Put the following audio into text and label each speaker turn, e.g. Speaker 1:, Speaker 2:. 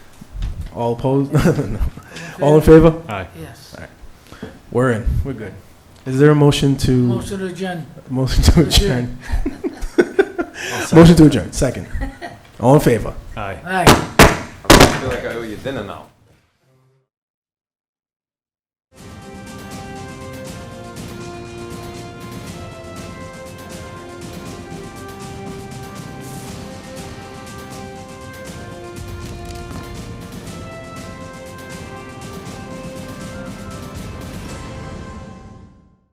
Speaker 1: All opposed? No. All in favor?
Speaker 2: Aye.
Speaker 3: Yes.
Speaker 1: We're in. We're good. Is there a motion to,
Speaker 3: Motion to adjourn.
Speaker 1: motion to adjourn? Motion to adjourn, second. All in favor?
Speaker 2: Aye.
Speaker 3: Aye.
Speaker 4: I feel like I owe you dinner now.